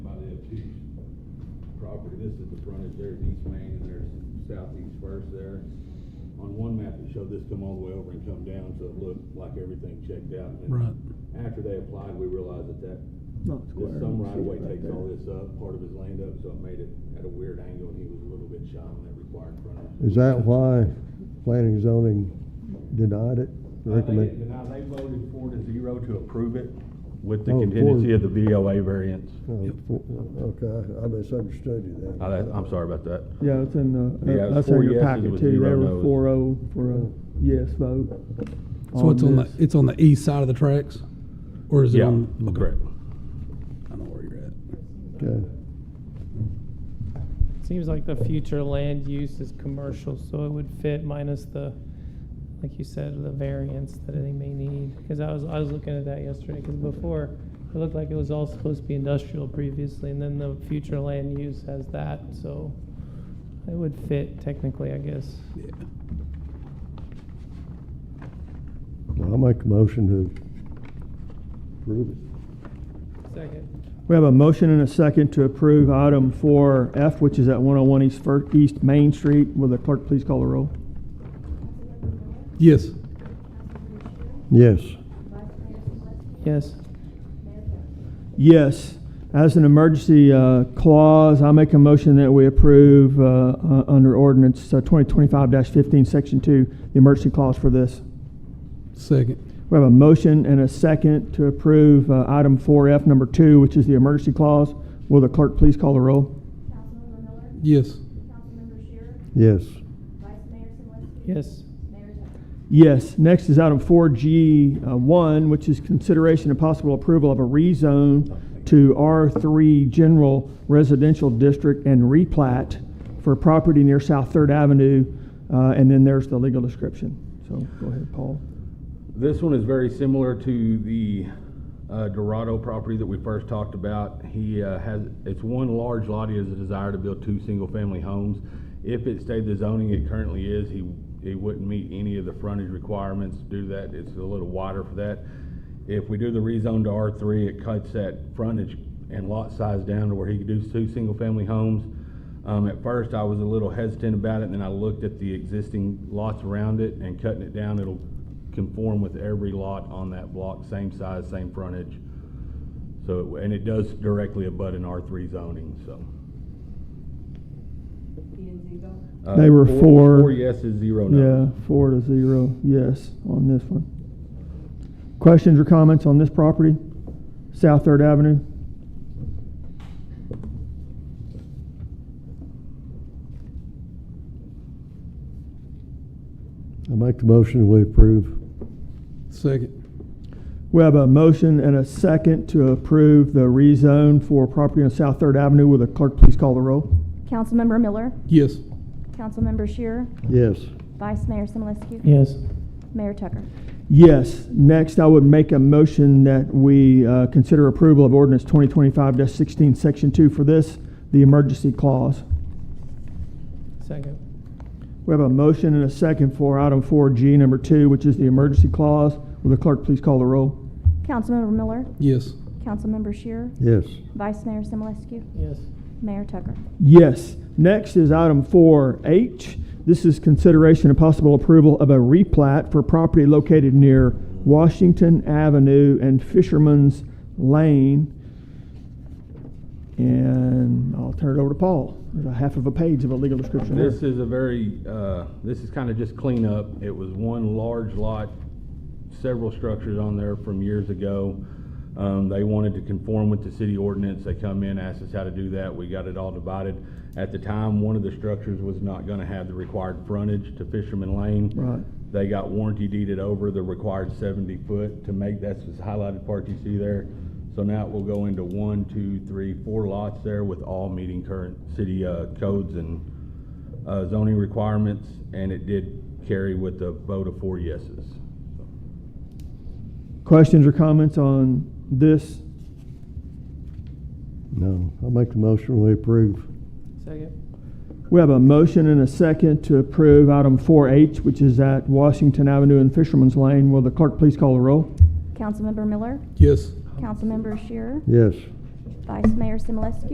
property, this is the frontage, there's East Main and there's Southeast First there. On one map, it showed this come all the way over and come down, so it looked like everything checked out. And Right. After they applied, we realized that that, Not that square. some you right see of way it right takes there. all this up, part of his land up, so it made it at a weird angle, and he was a little bit shy on that required frontage. Is that why planning and zoning denied it? Uh, They Recommend, didn't deny, they voted four to zero to approve it with the Oh, four. contingency of the BOA variance. oh, for- okay, I misunderstood you then. I, Uh, I'm sorry about that. Yeah, it's in the, uh, Yeah, it was that's in four your yeses packet with too. zero There noes. was four oh for a yes vote. So it's on the, this. it's on the east side of the tracks? Or is it Yeah, on? okay. correct. I know where you're at. Okay, Seems like the future land use is commercial, so it would fit minus the, like you said, the variance that they may need. Because I was, I was looking at that yesterday, because before, it looked like it was all supposed to be industrial previously, and then the future land use has that, so it would fit technically, I guess. Yeah. I'll make a motion to approve it. Second. We have a motion and a second to approve item four F, which is at one oh one East Fir- East Main Street. Will the clerk please call the roll? Yes. Yes, Yes. Yes. As an emergency uh, clause, I make a motion that we approve uh, uh, under ordinance twenty twenty-five fifteen, section two, the emergency clause for this. Second. We have a motion and a second to approve uh, item four F number two, which is the emergency clause. Will the clerk please call the roll? Councilmember Miller? Yes. Councilmember Shearer? yes, Vice Mayor Silvestri? Yes. Mayor Tucker? Yes. Next is item four G uh, one, which is consideration and possible approval of a rezone to R three General Residential District and replat for property near South Third Avenue. Uh, And then there's the legal description. So go ahead, Paul. This one is very similar to the uh, Dorado property that we first talked about. He uh, has, it's one large lot, he has a desire to build two single-family homes. If it stayed the zoning it currently is, he, he wouldn't meet any of the frontage requirements to do that. It's a little wider for that. If we do the rezone to R3, it cuts that frontage and lot size down to where he could do two single-family homes. Um, at first, I was a little hesitant about it, and then I looked at the existing lots around it and cutting it down, it'll conform with every lot on that block, same size, same frontage. So, and it does directly abut an R three zoning, so. Uh, They were four- for- Four yeses, zero Yeah, no. four to zero, yes, on this one. Questions or comments on this property? South Third Avenue? I make the motion we approve. Second. We have a motion and a second to approve the rezone for property on South Third Avenue. Will the clerk please call the roll? Councilmember Miller? Yes. Councilmember Shearer? Yes, Vice Mayor Simulescu? Yes. Mayor Tucker? Yes. Next, I would make a motion that we uh, consider approval of ordinance 2025-16, Section 2 for this, the emergency clause. Second. We have a motion and a second for item 4G, number 2, which is the emergency clause. Will the clerk please call the roll? Councilmember Miller? Yes. Councilmember Shearer? yes, Vice Mayor Simulescu? Yes. Mayor Tucker? Yes. Next is item four H. This is consideration and possible approval of a replat for property located near Washington Avenue and Fisherman's Lane. And I'll turn it over to Paul. There's a half of a page of a legal description there. This is a very, uh, this is kind of just cleanup. It was one large lot, several structures on there from years ago. Um, they wanted to conform with the city ordinance. They come in, asked us how to do that. We got it all divided. At the time, one of the structures was not gonna have the required frontage to Fisherman Lane. Right. They got warranty deeded over the required seventy foot to make, that's the highlighted part you see there. So now it will go into one, two, three, four lots there with all meeting current city, uh, codes and, uh, zoning requirements. And it did carry with a vote of four yeses. Questions or comments on this? no, I make the motion we approve. Second. We have a motion and a second to approve item four H, which is at Washington Avenue and Fisherman's Lane. Will the clerk please call the roll? Councilmember Miller? Yes. Councilmember Shearer? Yes. Vice Mayor Simulescu?